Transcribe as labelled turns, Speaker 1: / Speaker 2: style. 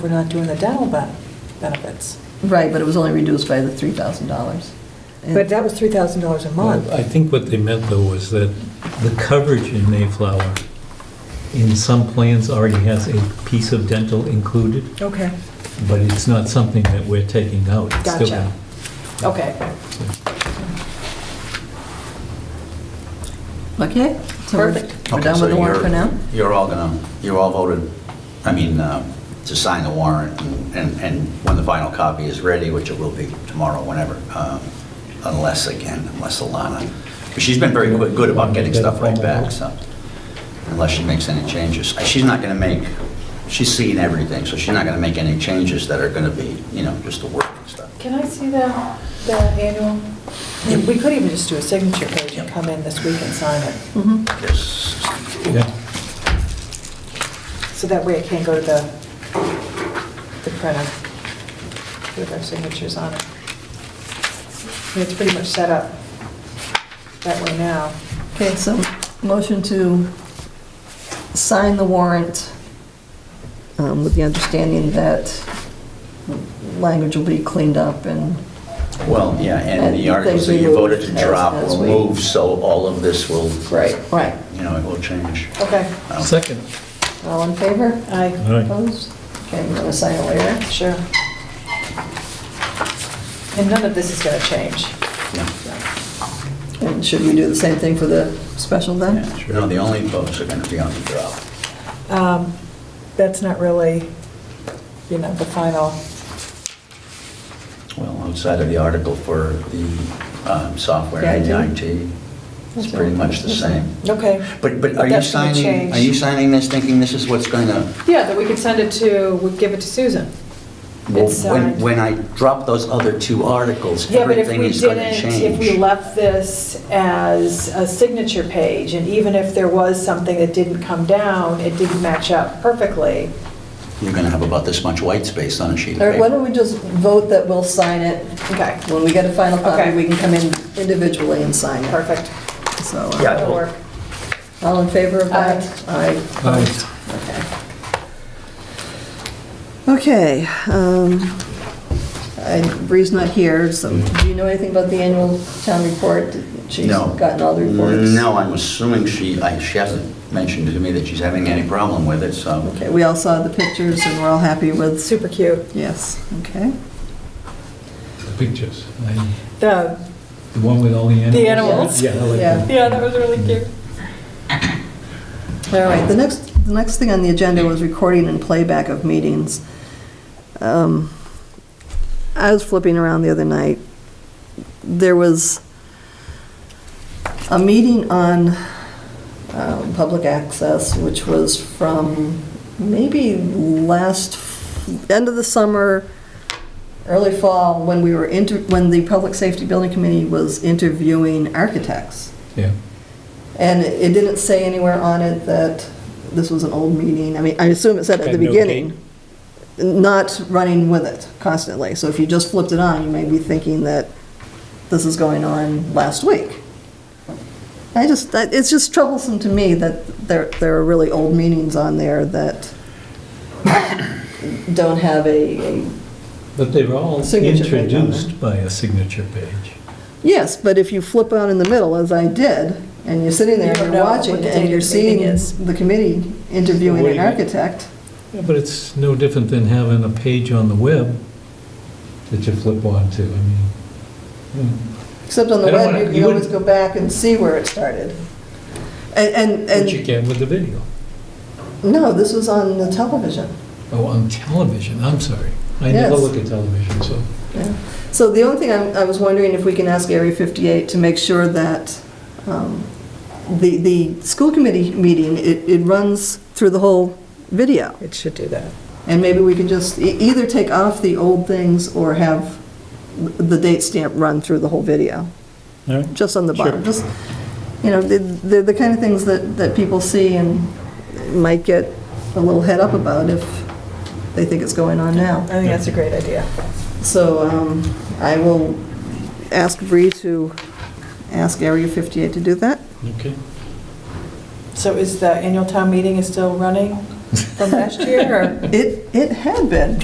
Speaker 1: We're not doing the dental ben- benefits.
Speaker 2: Right, but it was only reduced by the $3,000. And-
Speaker 1: But that was $3,000 a month.
Speaker 3: I think what they meant, though, was that the coverage in Mayflower, in some plans, already has a piece of dental included,
Speaker 1: Okay,
Speaker 3: but it's not something that we're taking out. It's still-
Speaker 1: Gotcha. okay.
Speaker 2: Okay? so we're-
Speaker 1: Perfect.
Speaker 2: We're
Speaker 4: Okay,
Speaker 2: done
Speaker 4: so
Speaker 2: with the warrant for
Speaker 4: you're-
Speaker 2: now?
Speaker 4: You're all gonna, you all voted, I mean, uh, to sign the warrant, and, and when the final copy is ready, which it will be tomorrow, whenever, um, unless, again, unless Alana, but she's been very good- good about getting stuff right back, so, unless she makes any changes. Uh, She's not gonna make, she's seen everything, so she's not gonna make any changes that are gonna be, you know, just the work and stuff.
Speaker 5: Can I see the, the annual?
Speaker 1: Yeah, We could even just do a signature page and come in this week and sign it.
Speaker 2: Mhm.
Speaker 4: Yes.
Speaker 3: Yeah.
Speaker 1: So that way it can go to the, the printer with our signatures on it. And It's pretty much set up that way now.
Speaker 2: Okay, so motion to sign the warrant um, with the understanding that language will be cleaned up and,
Speaker 4: Well, yeah, and the
Speaker 2: And
Speaker 4: articles that
Speaker 2: things
Speaker 4: you voted to
Speaker 2: removed as-
Speaker 4: drop
Speaker 2: as
Speaker 4: will
Speaker 2: we-
Speaker 4: move, so all of this will,
Speaker 2: right, right.
Speaker 4: you know, it will change.
Speaker 1: Okay,
Speaker 4: Um,
Speaker 3: Second.
Speaker 2: All in favor?
Speaker 1: aye,
Speaker 3: All right.
Speaker 2: Opposed? Okay, we're gonna sign it later.
Speaker 1: sure. And none of this is going to change.
Speaker 4: yeah.
Speaker 2: And should we do the same thing for the special then?
Speaker 4: Yeah, No, the only votes are going to be on the drop.
Speaker 1: Um, That's not really, you know, the final,
Speaker 4: Well, outside of the article for the um, software and the
Speaker 2: Yeah, I
Speaker 4: IT, it's pretty much the same.
Speaker 1: okay.
Speaker 4: But, but are you
Speaker 1: That's gonna
Speaker 4: signing,
Speaker 1: change.
Speaker 4: are you signing this thinking this is what's going to,
Speaker 5: Yeah, that we could send it to, we give it to Susan. It's
Speaker 4: when,
Speaker 5: signed.
Speaker 4: when I drop those other two articles,
Speaker 5: Yeah, but if
Speaker 4: everything
Speaker 5: we
Speaker 4: is going to
Speaker 5: didn't, if we
Speaker 4: change?
Speaker 5: left this as a signature page, and even if there was something that didn't come down, it didn't match up perfectly.
Speaker 4: You're going to have about this much white space on a sheet of
Speaker 2: All right, why
Speaker 4: paper.
Speaker 2: don't we just vote that we'll sign it?
Speaker 5: Okay,
Speaker 2: When we get a final copy,
Speaker 5: Okay.
Speaker 2: we can come in individually and sign it.
Speaker 5: perfect.
Speaker 2: So, uh,
Speaker 4: Yeah.
Speaker 5: That'll work.
Speaker 2: all in favor of that? Aye.
Speaker 3: Aye.
Speaker 2: Okay, um, I- Bree's not here, so do you know anything about the annual town report? She's
Speaker 4: No.
Speaker 2: gotten all the reports?
Speaker 4: No, I'm assuming she, I- she hasn't mentioned to me that she's having any problem with it, so.
Speaker 2: Okay, we all saw the pictures and we're all happy with,
Speaker 1: Super cute.
Speaker 2: yes, okay.
Speaker 3: The Pictures. I-
Speaker 1: The,
Speaker 3: The one with all the animals?
Speaker 1: animals.
Speaker 3: Yeah, I like
Speaker 2: Yeah.
Speaker 3: that.
Speaker 5: Yeah, that was really cute.
Speaker 2: All right, the next, the next thing on the agenda was recording and playback of meetings. Um, I was flipping around the other night. There was a meeting on um, public access, which was from maybe last, f- end of the summer, early fall, when we were, inter- when the Public Safety Building Committee was interviewing architects.
Speaker 3: Yeah.
Speaker 2: And it didn't say anywhere on it that this was an old meeting. I mean, I assume it said at the
Speaker 3: Had no
Speaker 2: beginning, not running with it constantly. So if you just flipped it on, you may be thinking that this is going on last week. I just, that- it's just troublesome to me that there, there are really old meetings on there that don't have a, a-
Speaker 3: But they were all
Speaker 2: Signature page on there.
Speaker 3: introduced by a signature page.
Speaker 2: yes, but if you flip on in the middle, as I did, and you're sitting there
Speaker 1: You don't
Speaker 2: and
Speaker 1: know
Speaker 2: you're
Speaker 1: what
Speaker 2: watching
Speaker 1: the
Speaker 2: and
Speaker 1: date
Speaker 2: you're
Speaker 1: of the meeting
Speaker 2: seeing
Speaker 1: is.
Speaker 2: the committee interviewing
Speaker 3: What do
Speaker 2: an
Speaker 3: you mean?
Speaker 2: architect,
Speaker 3: Yeah, but it's no different than having a page on the web that you flip onto. I mean, mm.
Speaker 2: Except on the
Speaker 3: I don't
Speaker 2: web,
Speaker 3: wanna-
Speaker 2: you can
Speaker 3: you
Speaker 2: always go
Speaker 3: wouldn't-
Speaker 2: back and see where it started. And, and,
Speaker 3: which you
Speaker 2: and,
Speaker 3: can with the video.
Speaker 2: no, this was on the television.
Speaker 3: Oh, on television, I'm sorry. I never
Speaker 2: Yes.
Speaker 3: look at television, so.
Speaker 2: Yeah. So the only thing I, I was wondering if we can ask Area 58 to make sure that, um, the, the school committee meeting, it, it runs through the whole video.
Speaker 1: it should do that.
Speaker 2: And maybe we can just e- either take off the old things or have the date stamp run through the whole video.
Speaker 3: All right.
Speaker 2: just on the bottom,
Speaker 3: Sure.
Speaker 2: just, you know, the- the the kind of things that, that people see and might get a little head up about if they think it's going on now.
Speaker 1: I think that's a great idea.
Speaker 2: So um, I will ask Bree to ask Area 58 to do that.
Speaker 3: Okay.
Speaker 1: So is the annual town meeting is still running?
Speaker 5: from last year, or?
Speaker 2: It, it had been.